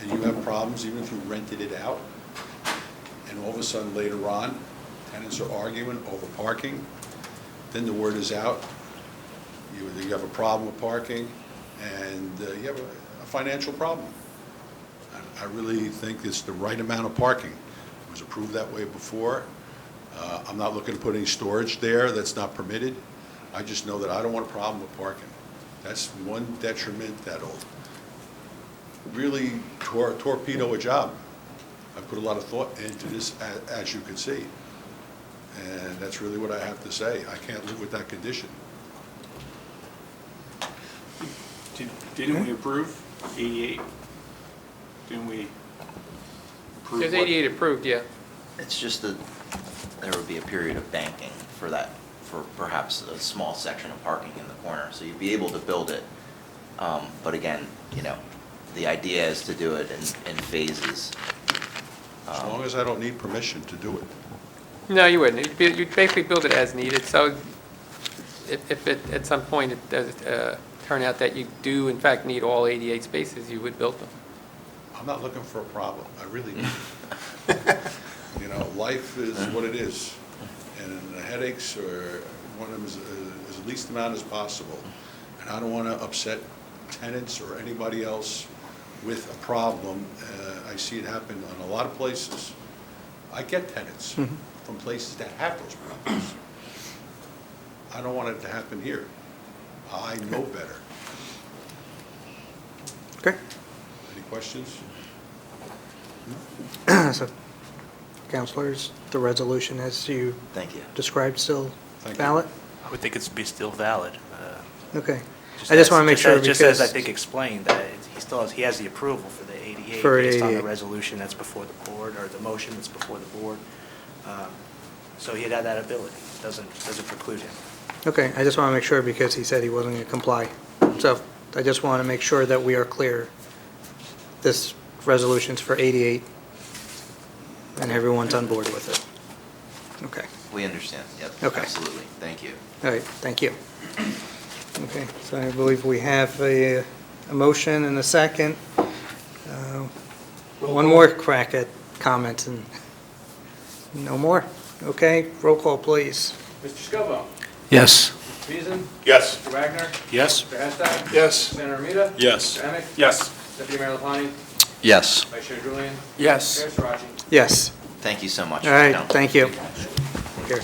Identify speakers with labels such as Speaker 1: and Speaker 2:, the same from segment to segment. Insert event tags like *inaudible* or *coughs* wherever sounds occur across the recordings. Speaker 1: and you have problems, even if you rented it out, and all of a sudden later on, tenants are arguing over parking, then the word is out, you, you have a problem with parking, and uh, you have a- a financial problem. I- I really think it's the right amount of parking. It was approved that way before. Uh, I'm not looking to put any storage there that's not permitted. I just know that I don't want a problem with parking. That's one detriment that'll really tor- torpedo a job. I put a lot of thought into this, a- as you can see. And that's really what I have to say. I can't live with that condition.
Speaker 2: Did- Didn't we approve 88? Didn't we approve?
Speaker 3: There's
Speaker 2: what-
Speaker 3: 88 approved, yeah.
Speaker 4: It's just that there would be a period of banking for that, for perhaps a small section of parking in the corner. So you'd be able to build it. Um, But again, you know, the idea is to do it in, in phases.
Speaker 1: As long as I don't need permission to do it.
Speaker 3: No, you wouldn't. You'd be- You'd basically build it as needed, so if if it, at some point, it does uh, turn out that you do in fact need all 88 spaces, you would build them.
Speaker 1: I'm not looking for a problem. I really, you know, life is what it is. And the headaches are, one of them is uh, as least amount as possible. And I don't want to upset tenants or anybody else with a problem. Uh, I see it happen in a lot of places. I get tenants from places that have those problems. I don't want it to happen here. I know better.
Speaker 5: Okay, *clears throat*
Speaker 1: Any questions?
Speaker 5: so councilors, the resolution as you
Speaker 4: Thank you.
Speaker 5: described still
Speaker 1: Thank you.
Speaker 5: valid?
Speaker 6: I would think it's be still valid. uh,
Speaker 5: Okay. I just
Speaker 6: as-
Speaker 5: want to make sure
Speaker 6: as- Just as I
Speaker 5: because-
Speaker 6: think explained, that it- he still has, he has the approval for the 88
Speaker 5: For
Speaker 6: based on the
Speaker 5: 88.
Speaker 6: resolution that's before the board, or the motion that's before the board. Um, So he had that ability, It doesn't, doesn't preclude him.
Speaker 5: Okay, I just want to make sure because he said he wasn't going to comply. So I just want to make sure that we are clear. This resolution's for 88, and everyone's on board with it. Okay,
Speaker 4: We understand. Yep,
Speaker 5: Okay.
Speaker 4: absolutely. Thank you.
Speaker 5: all right, thank you. Okay, so I believe we have a, a motion and a second. Uh, One more crack at comments and, no more? Okay, roll call, please.
Speaker 7: Mr. Scobah.
Speaker 6: Yes.
Speaker 7: Mr. Beeson.
Speaker 2: Yes.
Speaker 7: Mr. Wagner.
Speaker 6: Yes.
Speaker 7: Mr. Hestag.
Speaker 2: Yes.
Speaker 7: Senator Armita.
Speaker 1: Yes.
Speaker 7: Mr. Emick.
Speaker 2: Yes.
Speaker 7: Deputy Mayor LaPlante.
Speaker 4: Yes.
Speaker 7: Vice Chair Julian.
Speaker 6: Yes.
Speaker 7: Mayor Sarachi.
Speaker 5: Yes,
Speaker 4: Thank you so much.
Speaker 5: all right,
Speaker 4: Council.
Speaker 5: thank you. Here.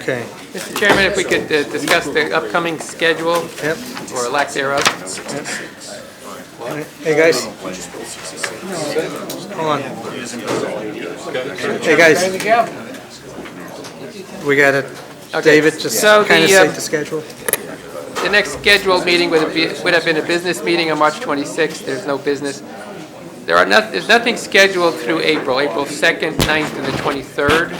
Speaker 5: Okay,
Speaker 3: Mr. Chairman, if we could uh, discuss the upcoming schedule
Speaker 5: yep.
Speaker 3: or lack thereof.
Speaker 5: Hey, guys. Hold on. Hey, guys. We got it.
Speaker 3: Okay,
Speaker 5: David, just
Speaker 3: so the,
Speaker 5: kind of
Speaker 3: um,
Speaker 5: set the schedule.
Speaker 3: The next scheduled meeting would have been- would have been a business meeting on March 26th. There's no business. There are not, there's nothing scheduled through April, April 2nd, 9th, and the 23rd.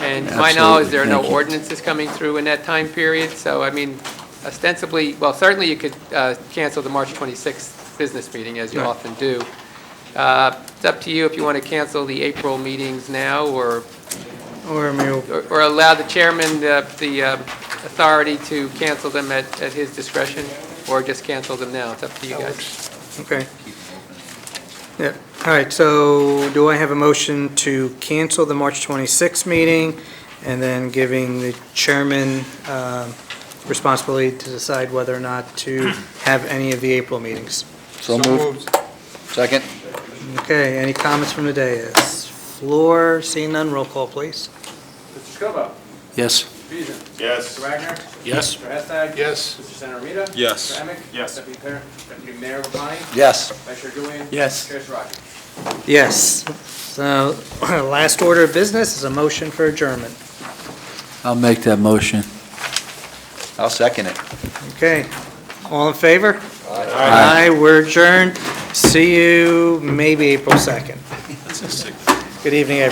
Speaker 3: And to my knowledge, there are no ordinances coming through in that time period. So, I mean, ostensibly, well, certainly you could uh, cancel the March 26th business meeting, as you
Speaker 5: Right.
Speaker 3: often do. Uh, It's up to you if you want to cancel the April meetings now or
Speaker 5: Or, I mean,
Speaker 3: or or allow the chairman uh, the um, authority to cancel them at at his discretion, or just cancel them now. It's up to you guys.
Speaker 5: okay. Yeah, all right, so do I have a motion to cancel the March 26th meeting and then giving the chairman um, responsibility to decide whether or not to have any of the April meetings?
Speaker 8: So moved. Second?
Speaker 5: Okay, any comments from the dais? Floor, seeing none, roll call, please.
Speaker 7: Mr. Scobah.
Speaker 8: Yes.
Speaker 7: Mr. Beeson. Mr.
Speaker 2: Yes.
Speaker 7: Wagner.
Speaker 6: Yes.
Speaker 7: Mr. Hestag.
Speaker 8: Yes.
Speaker 7: Mr. Senator Armita.
Speaker 1: Yes.
Speaker 7: Mr. Emick.
Speaker 2: Yes.
Speaker 7: Deputy Mayor, Deputy Mayor LaPlante.
Speaker 8: Yes.
Speaker 7: Vice Chair Julian.
Speaker 6: Yes.
Speaker 7: Chair Sarachi.
Speaker 5: Yes. So, *coughs* last order of business is a motion for adjournment.
Speaker 8: I'll make that motion. I'll second it.
Speaker 5: Okay, all in favor? Aye. we're adjourned. See you maybe April 2nd. Good evening, everyone.